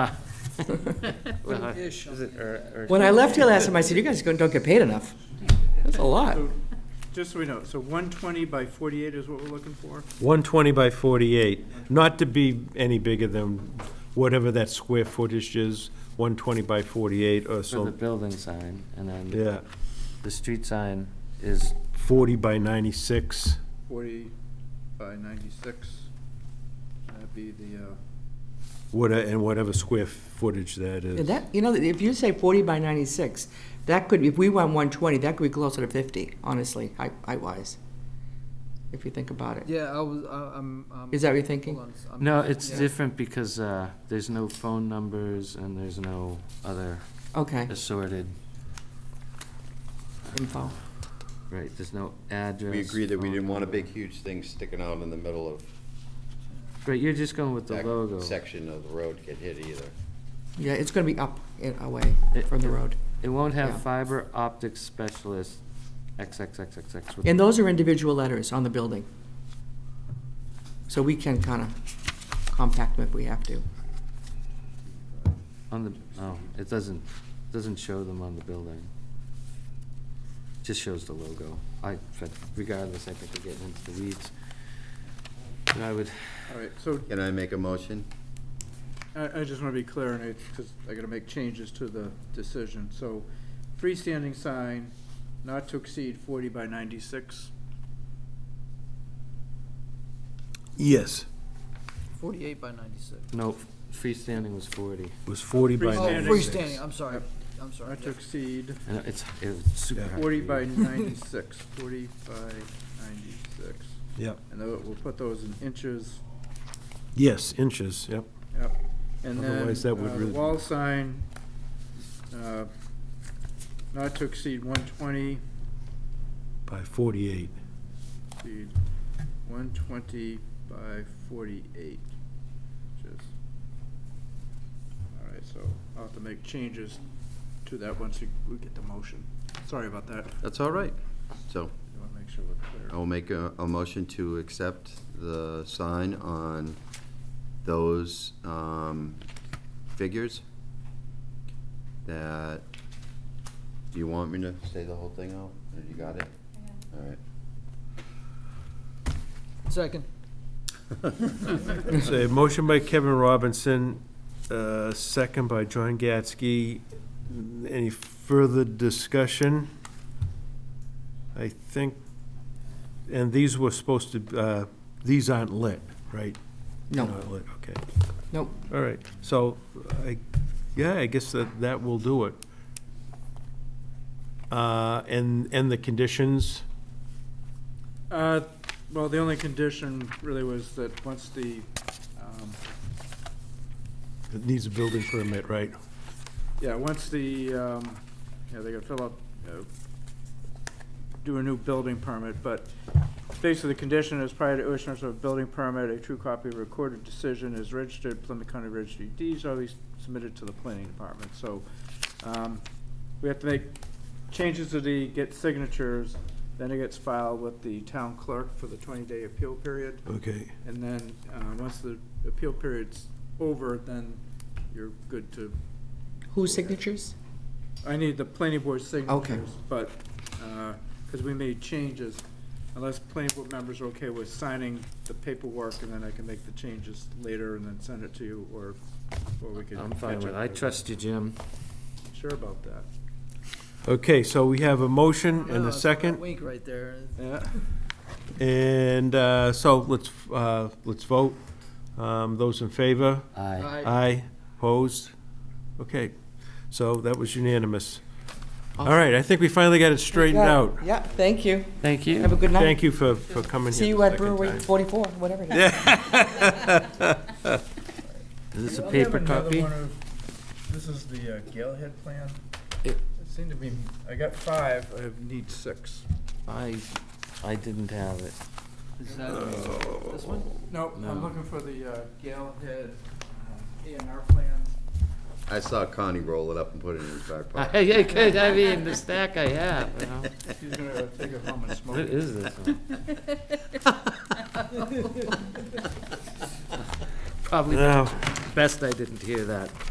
Uh, is it- or- or- When I left here last time, I said, you guys don't don't get paid enough. That's a lot. So, Just so we know, so 120 by 48 is what we're looking for? 120 by 48, not to be any bigger than whatever that square footage is, 120 by 48 or For the so, building sign, and then yeah, the street sign is, 40 by 96. 40 by 96. That'd be the, uh, What, and whatever square footage that And is. That, you know, if you say forty by ninety-six, that could, if we went one twenty, that could be closer to fifty, honestly, height, height-wise. If you think about it. Yeah, I was, I- I'm, I'm. Is that what you're thinking? hold on, I'm- no, it's yeah. different because uh, there's no phone numbers and there's no other Okay, assorted, info. right, there's no address. Oh, We agreed that we phone didn't want a number. big, huge thing sticking out in the middle of Right, you're just going with the logo. that section of the road get hit either. Yeah, it's gonna be up and away It- from the road. It won't Yeah. have fiber optic specialist XXXXX. with- And those are individual letters on the building. So we can kinda compact them if we have to. On the, oh, it doesn't, doesn't show them on the building. Just shows the logo. I, but regardless, I think we're getting into the weeds. And I would, all right, so Can I make a motion? I, I just want to be clear on it, because I got to make changes to the decision. So freestanding sign not to exceed 40 by 96. Yes, Forty-eight by ninety-six. no, freestanding was forty. it was 40 Oh, by Freestanding. 96. freestanding, I'm sorry, I'm sorry. Not to exceed I know, it's, it's super Yeah. hard. to 40 read. by 96, 40 by 96. Yep, And tho- we'll put those in inches. yes, inches, yep. Yep. And then, Otherwise, that would uh, the really- wall sign, uh, not to exceed one twenty, By 48. exceed one twenty by forty-eight. Just, all right, so I'll have to make changes to that once we, we get the motion. Sorry about that. That's all right. So I wanna make sure we're clear. I'll make a, a motion to accept the sign on those, um, figures. That, do you want me to say the whole thing out? Or you got it? All right. Second. So, a motion by Kevin Robinson, uh, second by John Gatsky. Any further discussion? I think, and these were supposed to, uh, these aren't lit, right? No, Not lit, okay. nope. All right, so, I, yeah, I guess that, that will do it. Uh, and, and the conditions, Uh, well, the only condition really was that once the, um, it needs a building permit, right? Yeah, once the, um, yeah, they gotta fill up, uh, do a new building permit, but basically the condition is prior to issuance of a building permit, a true copy of a recorded decision is registered, Plymouth County Registry of Deeds, or at least submitted to the planning department, so, um, we have to make changes to the, get signatures, then it gets filed with the town clerk for the twenty-day appeal period. Okay. And then, uh, once the appeal period's over, then you're good to Whose signatures? I need the planning board Okay. signatures, but, because we made changes, unless planning board members are okay with signing the paperwork, and then I can make the changes later and then send it to you, or, or we can. I'm fine catch with, up it. I later. trust you, Jim. Sure about that. Okay, so we have a motion and No, a it's that second. Wink right there. Yeah, And uh, so let's, uh, let's vote. Um, Those in favor? Aye. Aye. Aye. Opposed? Okay, so that was unanimous. All right, I think we finally got it straightened out. Yeah, thank you. Thank Have a you. good night. Thank you for, for coming See here you the at second Brewery time. forty-four, whatever it is. Is this a I'll paper have another copy? one of- This is the uh, Galehead plan. It- It seemed to be, I got five, I have- need six. I, I didn't have it. Is that this one? No, No. I'm looking for the uh, Galehead uh, A and R plan. I saw Connie roll it up and put it in his back pocket. I, I could, I mean, the stack I have, you know. He's gonna take it home and smoke What it. is this one? Probably No. best I didn't hear that.